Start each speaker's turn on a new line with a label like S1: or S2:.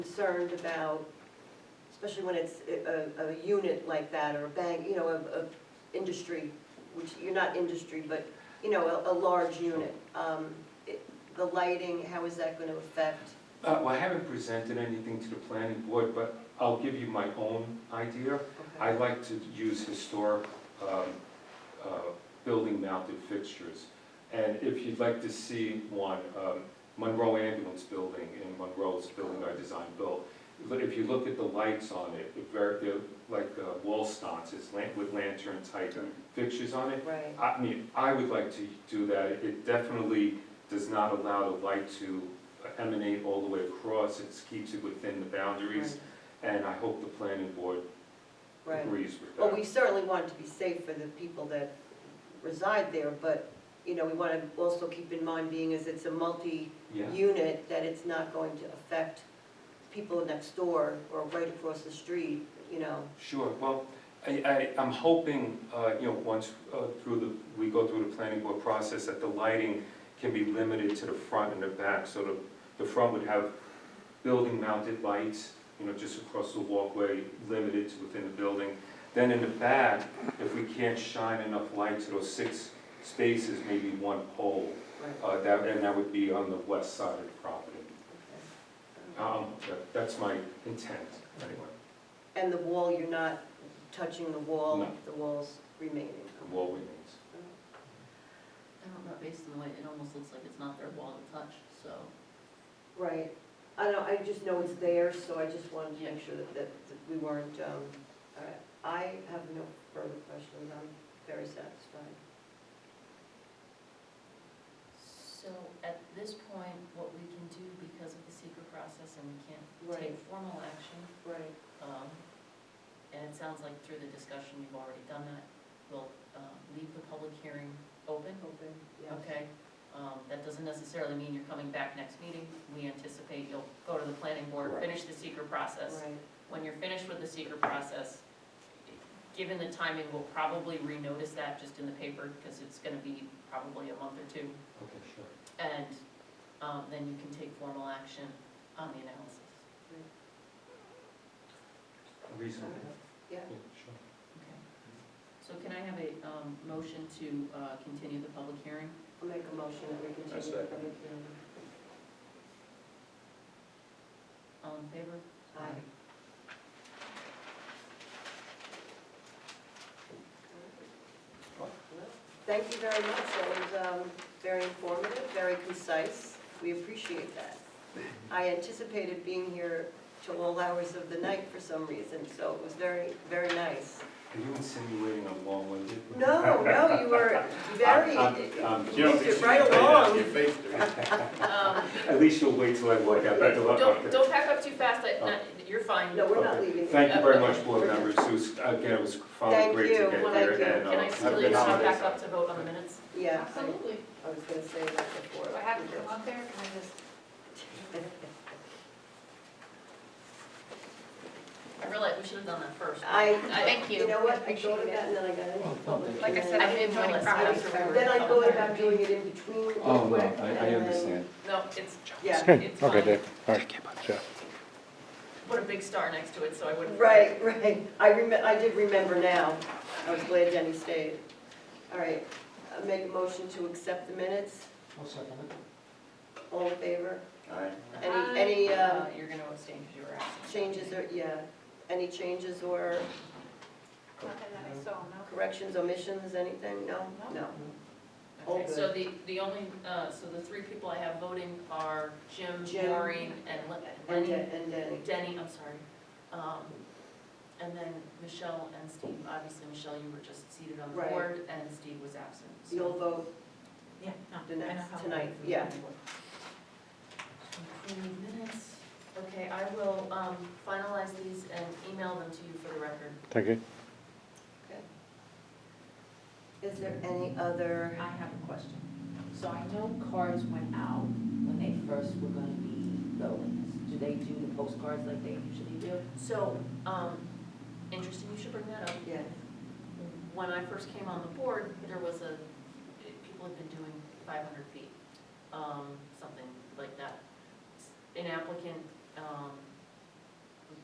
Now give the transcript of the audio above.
S1: concerned about, especially when it's a, a a unit like that, or a bank, you know, of, of industry, which, you're not industry, but, you know, a, a large unit. Um, it- The lighting, how is that gonna affect?
S2: Uh, Well, I haven't presented anything to the planning board, but I'll give you my own idea. I like to use historic um, uh, building mounted fixtures. And if you'd like to see one, um, Monroe Ambulance Building in Monroe's building I designed built. But if you look at the lights on it, it ver- they're like uh, wall sconces lan- with lantern type fixtures on it.
S1: Right,
S2: I mean, I would like to do that. It definitely does not allow the light to emanate all the way across. It keeps it within the boundaries, and I hope the planning board
S1: right.
S2: agrees with
S1: Well, we
S2: that.
S1: certainly want it to be safe for the people that reside there, but, you know, we wanna also keep in mind, being as it's a multi-
S2: Yeah,
S1: unit, that it's not going to affect people next door or right across the street, you know?
S2: sure. Well, I, I, I'm hoping, uh, you know, once, uh, through the, we go through the planning board process, that the lighting can be limited to the front and the back, so the, the front would have building mounted lights, you know, just across the walkway, limited to within the building. Then in the back, if we can't shine enough light to those six spaces, maybe one pole, uh, that, and that would be on the west side of the property. Um, that- that's my intent, anyway,
S1: And the wall, you're not touching the wall,
S2: No.
S1: the wall's remaining?
S2: the wall remains.
S3: I don't know, based on the way, it almost looks like it's not their wall to touch, so.
S1: Right, I don't, I just know it's there, so I just wanted to make sure that, that that we weren't, um, all right. I have no further questions, I'm very satisfied.
S3: So at this point, what we can do because of the secret process and we can't take
S1: Right,
S3: formal action,
S1: right,
S3: um, and it sounds like through the discussion you've already done that, we'll, um, leave the public hearing open,
S1: open, yeah.
S3: okay? Um, that doesn't necessarily mean you're coming back next meeting. We anticipate you'll go to the planning board,
S2: Correct.
S3: finish the secret process.
S1: Right,
S3: When you're finished with the secret process, given the timing, we'll probably renotice that just in the paper, because it's gonna be probably a month or two.
S2: Okay, sure.
S3: And, um, then you can take formal action on the analysis.
S1: all
S2: Reasonable,
S1: right, yeah.
S2: yeah, sure.
S3: Okay. So can I have a, um, motion to, uh, continue the public hearing?
S1: I'll make a motion that we
S4: I
S1: continue the
S4: second.
S1: public hearing.
S3: All in favor?
S1: Aye. Thank you very much, that was um, very informative, very concise, we appreciate that. I anticipated being here till all hours of the night for some reason, so it was very, very nice.
S2: Are you insinuating I'm long-winded?
S1: No, no, you were very,
S2: I'm- I'm- I'm
S1: you moved it
S4: Just
S1: right along.
S3: Um,
S2: At least you'll wait till I walk out that door.
S3: don't, don't pack up too fast, I, not, you're fine.
S1: No, we're not leaving.
S2: Thank you very much, board members, it was, again, it was finally
S1: Thank
S2: great to
S1: you.
S2: get
S1: Well,
S2: here.
S1: thank you.
S2: and, uh,
S3: Can I
S2: have
S3: still
S2: a good
S3: come
S2: holiday.
S3: back up to vote on the minutes?
S1: Yeah, I
S5: Absolutely.
S1: I was gonna say that before.
S5: Do I have to come up there? Can I just?
S3: I realize we should have done that first.
S1: I,
S5: Thank you.
S1: you know what, I
S5: Appreciate
S1: go to
S5: it.
S1: that and then I got into
S6: Oh,
S1: public.
S5: Like I said,
S3: I
S5: I'm in
S3: didn't
S5: joining
S3: realize
S5: process.
S3: that.
S1: Then I go about doing it in between real quick.
S6: Oh, no, I, I
S1: and then-
S6: understand.
S3: No, it's,
S1: Yeah.
S7: Okay,
S3: It's
S7: okay,
S3: fine.
S7: Dave, all right, Jeff.
S3: put a big star next to it, so I wouldn't.
S1: Right, right. I remem, I did remember now. I was glad Jenny stayed. All right, I make a motion to accept the minutes. All in favor?
S5: Aye.
S1: Any, any
S3: Uh,
S1: uh,
S3: You're gonna abstain because you were absent.
S1: changes or, yeah, any changes or
S5: Nothing that I saw, no.
S1: corrections, omissions, anything? No? No.
S3: Okay,
S1: All
S3: so the, the only, uh, so the three people I have voting are Jim,
S1: Jim.
S3: Maureen, and Le-
S1: And
S3: Lenny.
S1: then, and then,
S3: Denny, I'm sorry. Um, And then Michelle and Steve, obviously, Michelle, you were just seated on the
S1: Right.
S3: board, and Steve was absent. so-
S1: you'll vote
S3: Yeah.
S1: the next, tonight, yeah.
S3: Approve minutes. Okay, I will um, finalize these and email them to you for the record.
S7: Thank you.
S1: Is there any other,
S8: I have a question. So I know cards went out when they first were gonna be buildings. Do they do the postcards like they usually do?
S3: So, um, interesting, you should bring that up.
S1: yeah,
S3: When I first came on the board, there was a, people had been doing five hundred feet, um, something like that. An applicant, um,